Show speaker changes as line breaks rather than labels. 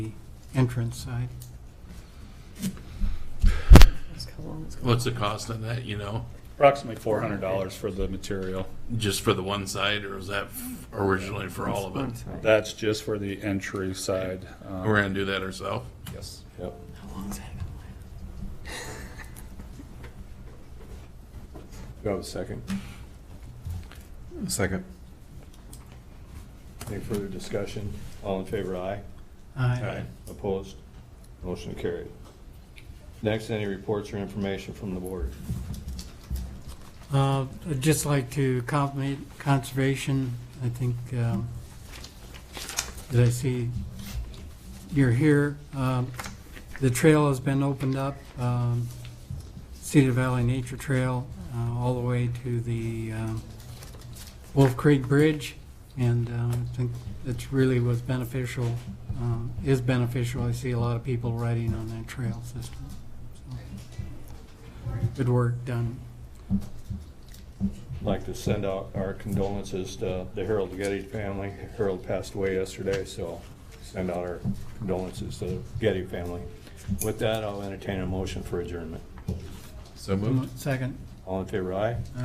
entrance side.
What's the cost on that, you know?
Approximately four hundred dollars for the material.
Just for the one side, or was that f- originally for all of it?
That's just for the entry side. um,
We're gonna do that ourselves?
Yes. Yep.
Go a second.
Second.
Any further discussion? All in favor, aye.
Aye.
Opposed? Motion carried. Next, any reports or information from the board?
Uh, I'd just like to compliment Conservation. I think, um, that I see you're here. Um, The trail has been opened up, um, Cedar Valley Nature Trail, uh, all the way to the um, Wolf Creek Bridge. And um, I think it's really was beneficial, um, is beneficial. I see a lot of people riding on that trail system. So, Good work done.
Like to send out our condolences to the Harold Getty family. Harold passed away yesterday, so send out our condolences to the Getty family. With that, I'll entertain a motion for adjournment.
So
Second.
All in favor, aye.